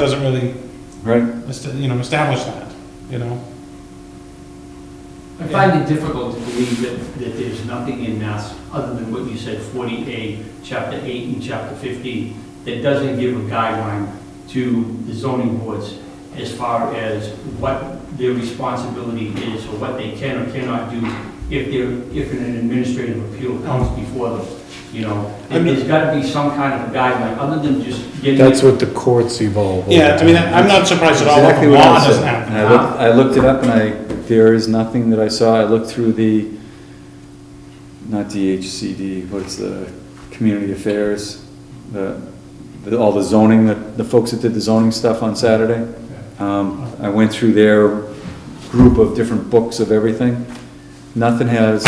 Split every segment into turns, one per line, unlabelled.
doesn't really,
Right.
est- you know, establish that, you know?
I find it difficult to believe that, that there's nothing in Mass, other than what you said, 40A, Chapter 8 and Chapter 15, that doesn't give a guideline to the zoning boards as far as what their responsibility is, or what they can or cannot do if they're, if an administrative appeal comes before them, you know?
I mean-
There's gotta be some kind of a guideline, other than just getting...
That's what the courts evolve. over
Yeah, I mean,
time.
I'm not surprised at all that
Exactly
the
what
law
I
doesn't
said.
have
And
that.
I looked, I looked it up and I, there is nothing that I saw. I looked through the, not DHCD, what's the, Community Affairs, the, the- all the zoning, the, the folks that did the zoning stuff on Saturday. Um, I went through their group of different books of everything. Nothing has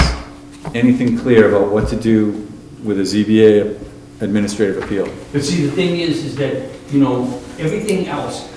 anything clear about what to do with a ZBA administrative appeal.
But see, the thing is, is that, you know, everything else,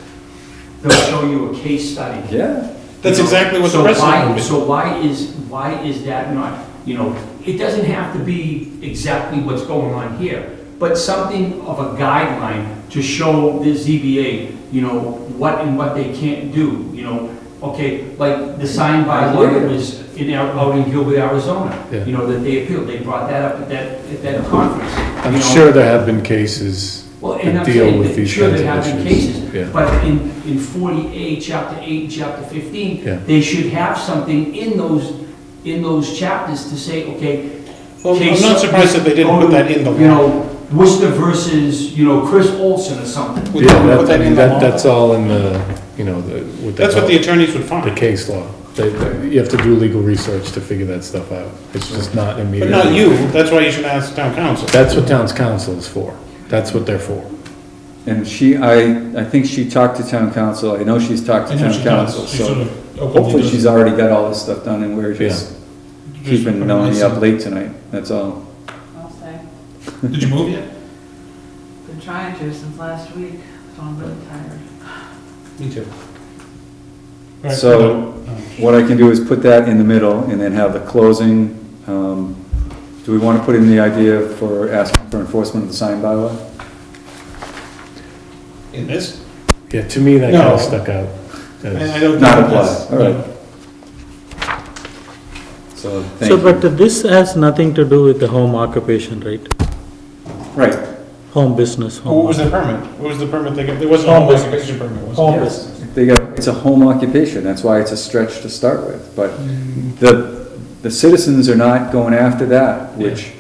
they'll show you a case study.
Yeah.
That's
You know,
exactly what the
so
precedent
why-
would be.
So why is, why is that not, you know, it doesn't have to be exactly what's going on here, but something of a guideline to show the ZBA, you know, what and what they can't do, you know? Okay, like the sign by law that was in, Ar- out in Gilbert, Arizona,
Yeah.
you know, that they appealed, they brought that up at that, at that conference. you
I'm
know.
sure there have been cases
Well, and
that
I'm
deal
saying
with
that,
these
sure,
kinds
there have
of
been
issues.
cases,
Yeah,
but in, in 48, chapter 8, and chapter 15,
Yeah.
they should have something in those, in those chapters to say, okay.
Well, I'm
case
not surprised that they didn't put that in the
You
law.
know, Worcester versus, you know, Chris Olson or something.
Would
yeah,
you put
that, I
that in
mean,
the
that,
law?
that's all in the, you know, the, what they
That's what the
call
attorneys would
the
find.
case law. They, they- you have to do legal research to figure that stuff out. It's just not
But
immediate.
not you, that's why you should ask town council.
That's what town's council is for. That's what they're for.
And she, I, I think she talked to town council, I know she's talked to
I know
town
she does.
council,
She sort
so
of openly
hopefully
does.
she's already got all this stuff done and we're just
Just put
keeping
a
Melanie
nice-
up late tonight, that's all.
I'll say,
Did you move yet?
been trying to since last week, so I'm really tired.
Me too. All right,
So-
hold on.
What I can do is put that in the middle and then have the closing, um, do we wanna put in the idea for asking for enforcement of the sign bylaw?
In this?
Yeah, to me, that kind
No.
of stuck
I
out.
I
That's-
don't.
Not
think
apply,
that's-
alright. So, thank
So, but
you.
this has nothing to do with the home occupation, right?
Right,
Home business,
What
home.
was the permit? What was the permit they got? There wasn't a home occupation permit, was there?
Home
Yes.
business.
they got, it's a home occupation, that's why it's a stretch to start with, but The, the citizens are not going after that, which,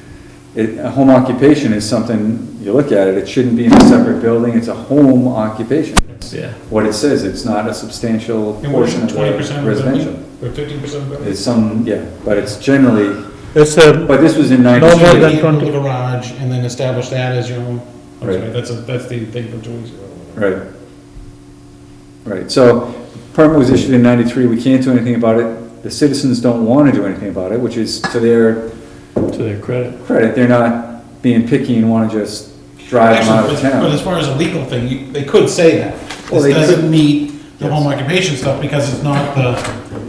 it, a home occupation is something, you look at it, it shouldn't be in a separate building, it's a home occupation.
Yeah.
What it says, it's not a substantial
And what is
portion
it,
of
twenty
the
percent of the
residential.
building? Or fifteen percent of the building?
It's some, yeah, but it's generally,
It's a,
but this was in
No more than-
ninety-three,
You can build a
20.
garage and then establish that as your own. I'm
Right.
sorry, that's, a- that's the thing from two weeks ago.
right. Right, so, permit was issued in ninety-three, we can't do anything about it, the citizens don't wanna do anything about it, which is to their
To their credit.
credit, they're not being picky and wanna just drive them out
Actually,
of
but-
town.
but as far as a legal thing, you- they could say that.
Well,
This
they
doesn't
could.
meet the home occupation stuff because it's not the,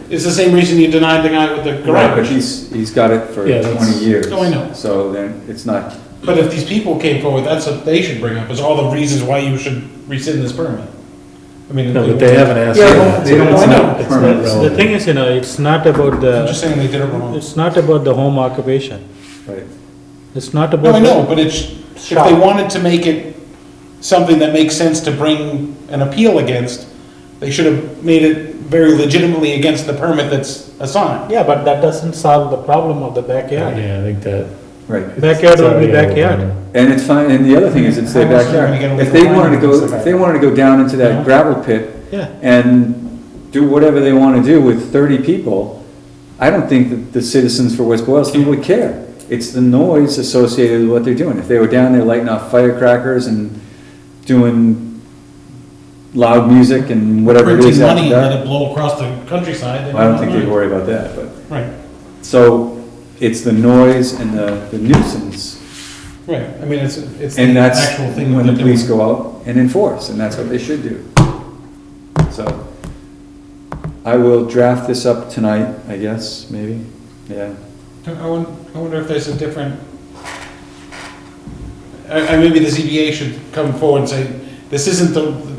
it's the same reason you denied the guy with the
Right, but
garage.
he's, he's got it for
Yeah, that's-
twenty years.
Oh, I know.
So then, it's not,
But if these people came forward, that's what they should bring up, is all the reasons why you should rescind this permit. I mean.
No, but they haven't asked. for
Yeah,
that,
they
so
don't
it's
want
not-
it.
It's not
Permits.
the
relevant.
thing is, you know, it's not about
I'm just
the,
saying they did it wrong.
it's not about the home occupation.
right,
It's not about.
No, I
the-
know, but it's, if they wanted to make it something that makes sense to bring an appeal against, they should have made it very legitimately against the permit that's assigned.
Yeah, but that doesn't solve the problem of the backyard.
Yeah, I think that.
right.
Backyard will be
Sorry, I don't
backyard.
know.
And it's fine, and the other thing is, it's their
How else are they gonna get
backyard.
away
If they
from
wanted to
lining
go,
against the
if they wanted to go down into that gravel pit
Yeah.
and do whatever they wanna do with thirty people, I don't think that the citizens for West Boylston would care. It's the noise associated with what they're doing. If they were down there lighting off firecrackers and doing loud music and whatever it
Printing
is after
money and
dark,
let it blow across the countryside.
I don't think they'd worry about that, but.
Right,
So it's the noise and the the nuisance,
right. I mean, it's, it's
and
the
that's
actual thing.
when
that
the
they're
police
doing.
go out and enforce, and that's what they should do. So I will draft this up tonight, I guess, maybe, yeah.
I wonder, I wonder if there's a different, I, I, maybe the ZBA should come forward and say, this isn't the,